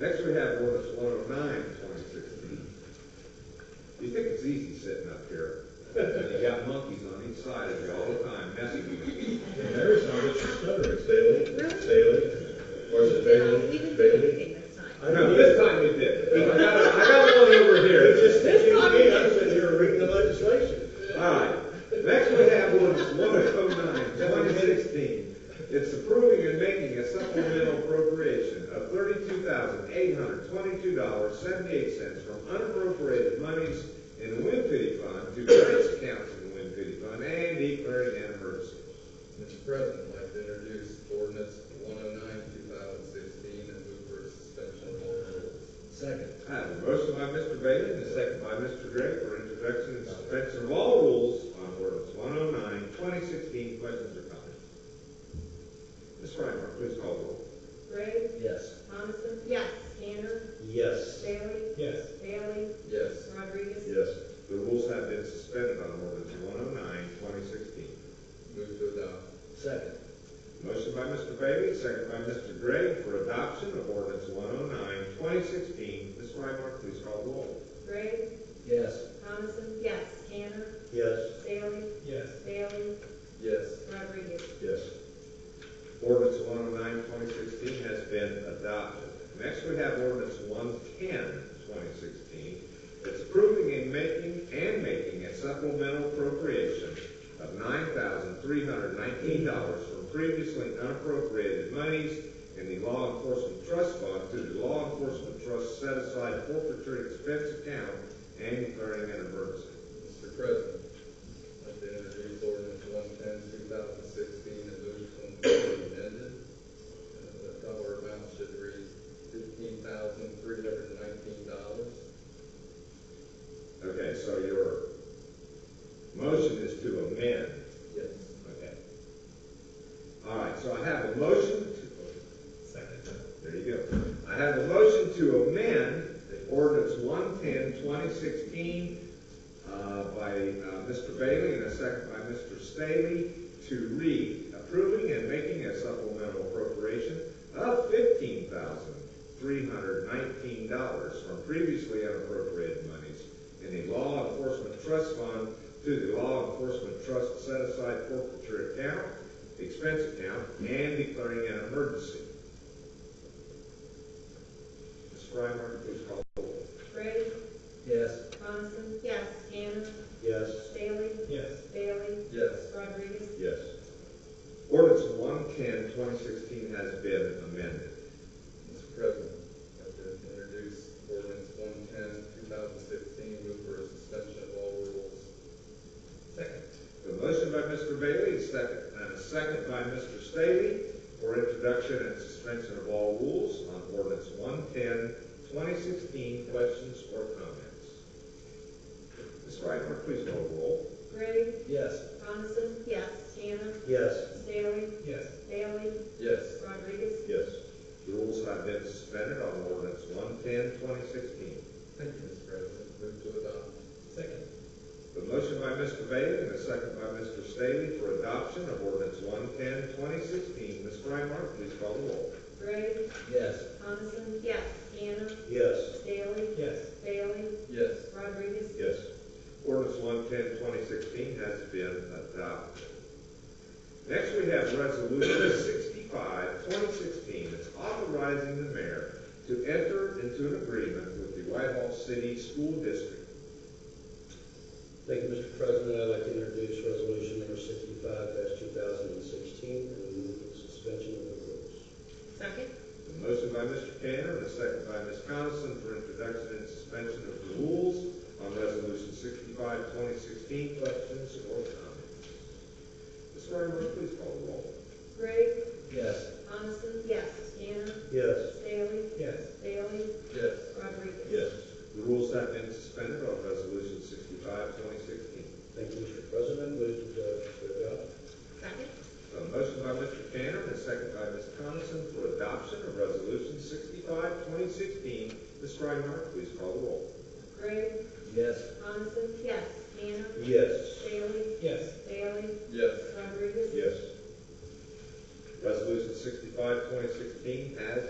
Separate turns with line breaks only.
Next we have ordinance one oh nine, twenty sixteen. You think it's easy sitting up here? You got monkeys on each side of you all the time messing with you.
There is no Mr. Studdard, Bailey, Bailey, or is it Bailey, Bailey?
I know, this time you did. I got, I got one over here.
It's just, I'm sitting here reading the legislation.
Alright, next we have ordinance one oh nine, twenty sixteen. It's approving and making a supplemental appropriation of thirty-two thousand eight hundred twenty-two dollars seventy-eight cents from unappropriated monies in the Wind Pity Fund to various accounts in the Wind Pity Fund and declaring an emergency.
Mr. President, I'd like to introduce ordinance one oh nine, two thousand sixteen, and move for suspension of all rules.
Second.
I have a motion by Mr. Bailey and a second by Mr. Gray for introduction and suspension of all rules on ordinance 109, 2016. Questions or comments? Ms. Frymark, please call the roll.
Gray,
Yes.
Coniston,
Yes.
Tanner,
Yes.
Bailey,
Yes.
Bailey,
Yes.
Rodriguez.
Yes.
The rules have been suspended on ordinance 109, 2016.
Move to adopt.
Second.
Motion by Mr. Bailey, second by Mr. Gray for adoption of ordinance 109, 2016. Ms. Frymark, please call the roll.
Gray,
Yes.
Coniston,
Yes.
Tanner,
Yes.
Bailey,
Yes.
Bailey,
Yes.
Rodriguez.
Yes.
Ordinance 109, 2016 has been adopted. Next, we have ordinance 110, 2016. It's approving and making, and making a supplemental appropriation of $9,319 from previously unappropriated monies in the Law Enforcement Trust Fund to the Law Enforcement Trust Set Aside Forfeiture Expense Account and declaring an emergency.
Mr. President, I'd like to introduce ordinance one ten, two thousand sixteen, and move to amend amended. Uh, The dollar amount should read fifteen thousand, three hundred and nineteen dollars.
Okay, so your motion is to amend
Yes.
Okay. All right, so I have a motion to. Second. There you go. I have a motion to amend ordinance 110, 2016 uh, by uh, Mr. Bailey and a second by Mr. Staley to read approving and making a supplemental appropriation of $15,319 from previously unappropriated monies in the Law Enforcement Trust Fund to the Law Enforcement Trust Set Aside Forfeiture Account, Expense Account, and declaring an emergency. Ms. Frymark, please call the roll.
Gray,
Yes.
Coniston,
Yes.
Tanner,
Yes.
Bailey,
Yes.
Bailey,
Yes.
Rodriguez.
Yes. Ordinance 110, 2016 has been amended.
Mr. President, I'd like to introduce ordinance 110, 2016, move for a suspension of all rules.
Second. A motion by Mr. Bailey, a second, and a second by Mr. Staley for introduction and suspension of all rules on ordinance 110, 2016. Questions or comments? Ms. Frymark, please call the roll.
Gray,
Yes.
Coniston,
Yes.
Tanner,
Yes.
Bailey,
Yes.
Bailey,
Yes.
Rodriguez.
Yes. The rules have been suspended on ordinance 110, 2016.
Thank you, Mr. President. uh, Move to adopt.
Second.
The motion by Mr. Bailey and a second by Mr. Staley for adoption of ordinance 110, 2016. Ms. Frymark, please call the roll.
Gray,
Yes.
Coniston,
Yes.
Tanner,
Yes.
Bailey,
Yes.
Bailey,
Yes.
Rodriguez.
Yes. Ordinance 110, 2016 has been adopted. Next, we have Resolution 65, 2016. It's authorizing the mayor to enter into an agreement with the Whitehall City School District.
Thank you, Mr. President. I'd like to introduce resolution number sixty-five two thousand and sixteen and move for suspension of the rules.
Second?
A motion by Mr. Tanner and a second by Ms. Coniston for introduction and suspension of the rules on Resolution 65, 2016. Questions or comments? Ms. Frymark, please call the roll.
Gray,
Yes.
Coniston,
Yes.
Tanner,
Yes.
Bailey,
Yes.
Bailey,
Yes.
Rodriguez.
The rules have been suspended on Resolution 65, 2016.
Thank you, Mr. President. Move to uh, to adopt.
Second?
A motion by Mr. Tanner and a second by Ms. Coniston for adoption of Resolution 65, 2016. Ms. Frymark, please call the roll.
Gray,
Yes.
Coniston,
Yes.
Tanner,
Yes.
Bailey,
Yes.
Bailey,
Yes.
Rodriguez.
Yes. Resolution 65, 2016 has